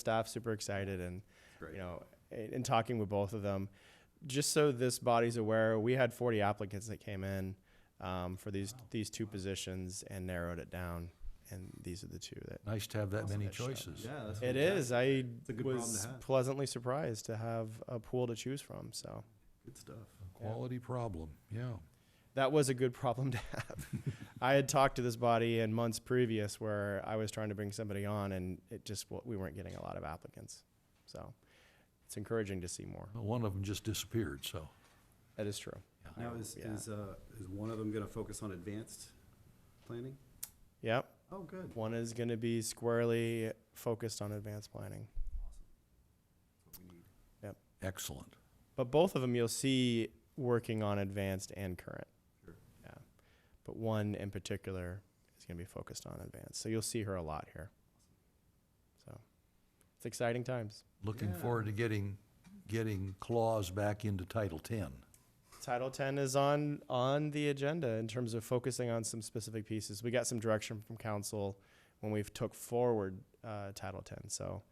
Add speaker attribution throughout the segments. Speaker 1: staff super excited and
Speaker 2: Great.
Speaker 1: you know in, in talking with both of them just so this body's aware we had 40 applicants that came in um, for these these two positions and narrowed it down and these are the two that
Speaker 3: Nice to have that many
Speaker 1: that shot.
Speaker 3: choices.
Speaker 2: Yeah, that's
Speaker 1: it
Speaker 2: fantastic.
Speaker 1: is i
Speaker 2: a good problem
Speaker 1: was
Speaker 2: to have.
Speaker 1: pleasantly surprised to have a pool to choose from so
Speaker 2: Good stuff.
Speaker 3: Quality problem, yeah.
Speaker 1: that was a good problem to have. I had talked to this body in months previous where I was trying to bring somebody on and it just, wa- we weren't getting a lot of applicants. So it's encouraging to see more.
Speaker 3: Well, One of them just disappeared, so.
Speaker 1: That is true.
Speaker 2: Now, is,
Speaker 1: Yeah.
Speaker 2: is, uh, is one of them gonna focus on advanced planning?
Speaker 1: Yep.
Speaker 2: Oh, good.
Speaker 1: One is going to be squarely focused on advanced planning.
Speaker 3: Excellent.
Speaker 1: But both of them you'll see working on advanced and current.
Speaker 2: Sure.
Speaker 1: Yeah. But one in particular is going to be focused on advanced. So you'll see her a lot here. So it's exciting times.
Speaker 3: Looking
Speaker 2: Yeah.
Speaker 3: forward to getting, getting claws back into Title Ten.
Speaker 1: Title 10 is on on the agenda in terms of focusing on some specific pieces. We got some direction from council when we've took forward uh, Title 10, so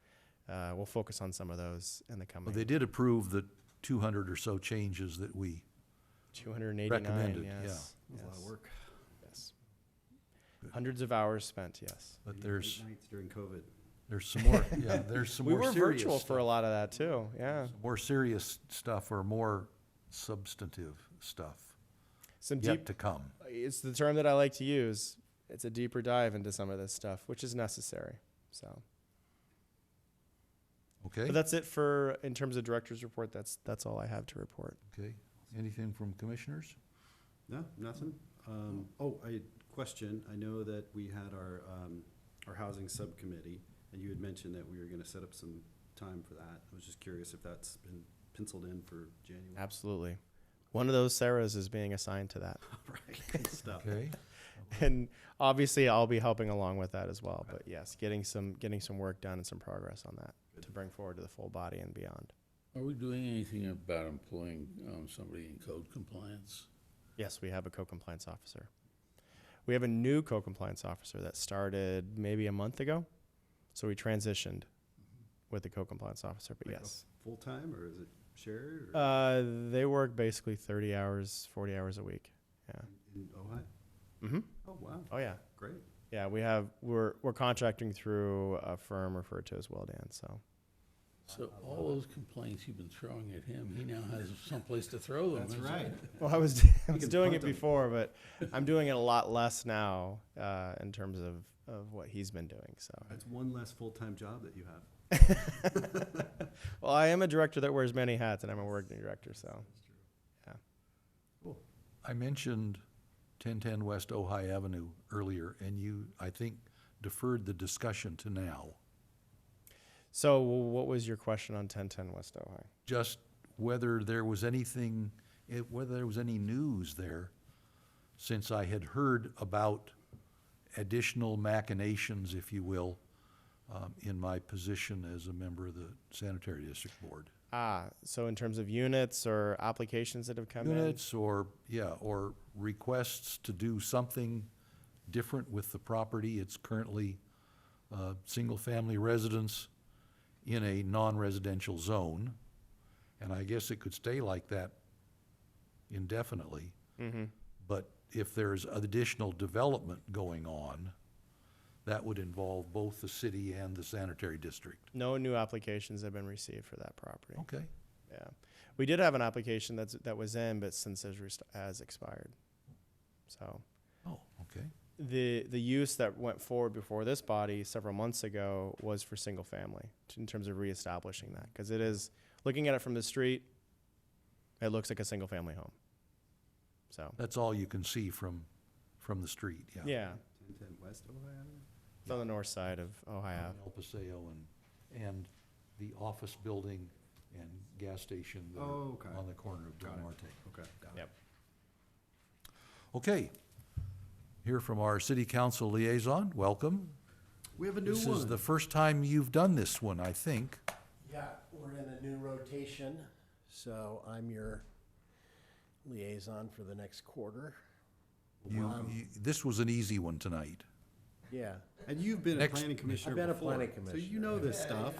Speaker 1: uh, we'll focus on some of those in the coming
Speaker 3: Well, they did approve the two hundred or so changes that we,
Speaker 1: 289.
Speaker 3: recommended, yeah.
Speaker 1: yes,
Speaker 2: That's a lot of
Speaker 1: yes,
Speaker 2: work.
Speaker 1: yes.
Speaker 3: Good.
Speaker 1: Hundreds of hours spent. Yes,
Speaker 3: but
Speaker 2: Late
Speaker 3: there's,
Speaker 2: Nights during COVID.
Speaker 3: there's some more, yeah, there's some
Speaker 1: we
Speaker 3: more
Speaker 1: were
Speaker 3: serious
Speaker 1: virtual for a
Speaker 3: stuff.
Speaker 1: lot of that too. Yeah,
Speaker 3: Some More serious stuff or more substantive stuff
Speaker 1: some
Speaker 3: yet
Speaker 1: deep.
Speaker 3: to come.
Speaker 1: It's the term that I like to use. It's a deeper dive into some of this stuff, which is necessary. So,
Speaker 3: Okay,
Speaker 1: but that's it for in terms of director's report. That's that's all I have to report.
Speaker 3: okay. Anything from commissioners?
Speaker 2: No, nothing? Um, oh, I, question, I know that we had our, um, our housing subcommittee, and you had mentioned that we were gonna set up some time for that. I was just curious if that's been penciled in for January.
Speaker 1: Absolutely. One of those Sarahs is being assigned to that.
Speaker 2: Right, good stuff.
Speaker 3: Okay,
Speaker 1: And obviously I'll be helping along with that as well. But yes, getting some getting some work done and some progress on that to bring forward to the full body and beyond.
Speaker 4: Are we doing anything about employing um, somebody in code compliance?
Speaker 1: Yes, we have a co-compliance officer. We have a new co-compliance officer that started maybe a month ago. So we transitioned with the co-compliance officer, but
Speaker 2: Like a
Speaker 1: yes.
Speaker 2: Full-time, or is it shared, or
Speaker 1: Uh, they work basically 30 hours, 40 hours a week. Yeah.
Speaker 2: in Ohio?
Speaker 1: Mhm.
Speaker 2: Oh, wow,
Speaker 1: Oh yeah.
Speaker 2: great.
Speaker 1: Yeah, we have we're we're contracting through a firm referred to as Well Dan, so
Speaker 4: So all those complaints you've been throwing at him, he now has someplace to throw them.
Speaker 2: That's
Speaker 4: isn't
Speaker 2: right.
Speaker 1: Well, I was, I was
Speaker 2: can
Speaker 1: doing
Speaker 2: punt
Speaker 1: it
Speaker 2: them.
Speaker 1: before, but I'm doing it a lot less now uh, in terms of, of what he's been doing. So,
Speaker 2: That's one less full-time job that you have.
Speaker 1: well, I am a director that wears many hats, and I'm a working director. So,
Speaker 3: I mentioned ten-ten West Ojai Avenue earlier, and you, I think, deferred the discussion to now.
Speaker 1: so what was your question on 1010 West Ojai?
Speaker 3: just whether there was anything, eh, whether there was any news there, since I had heard about additional machinations, if you will, um, in my position as a member of the sanitary district board.
Speaker 1: Ah, so in terms of units or applications that have come
Speaker 3: Units or, yeah, or requests to do something different with the property. It's currently, uh, single-family residence in a non-residential zone. And I guess it could stay like that indefinitely.
Speaker 1: in, hmm
Speaker 3: But if there's additional development going on, that would involve both the city and the sanitary district.
Speaker 1: no new applications have been received for that property.
Speaker 3: Okay,
Speaker 1: Yeah, we did have an application that's that was in, but since has, rest- has expired. So
Speaker 3: oh, okay,
Speaker 1: the the use that went forward before this body several months ago was for single family t- in terms of reestablishing that because it is looking at it from the street, it looks like a single family home. So
Speaker 3: that's all you can see from, from the street, yeah.
Speaker 1: yeah,
Speaker 2: Ten-ten West Ohio Avenue?
Speaker 1: it's on the north side of Ohio.
Speaker 3: El Paseo and, and the office building and gas station that are
Speaker 2: Oh, okay.
Speaker 3: on the corner of Del
Speaker 2: Got it.
Speaker 3: Norte.
Speaker 2: Okay, got it.
Speaker 1: Yep.
Speaker 3: Okay, hear from our city council liaison, welcome.
Speaker 2: We have a new
Speaker 3: This
Speaker 2: one.
Speaker 3: is the first time you've done this one, I think.
Speaker 5: Yeah, we're in a new rotation, so I'm your liaison for the next quarter.
Speaker 3: You, you, this was an easy one tonight.
Speaker 5: Yeah,
Speaker 2: And you've been a
Speaker 3: Next-
Speaker 2: planning commissioner
Speaker 5: I've been a
Speaker 2: before,
Speaker 5: planning
Speaker 2: So you
Speaker 5: commissioner,
Speaker 2: know
Speaker 5: yeah.
Speaker 2: this stuff.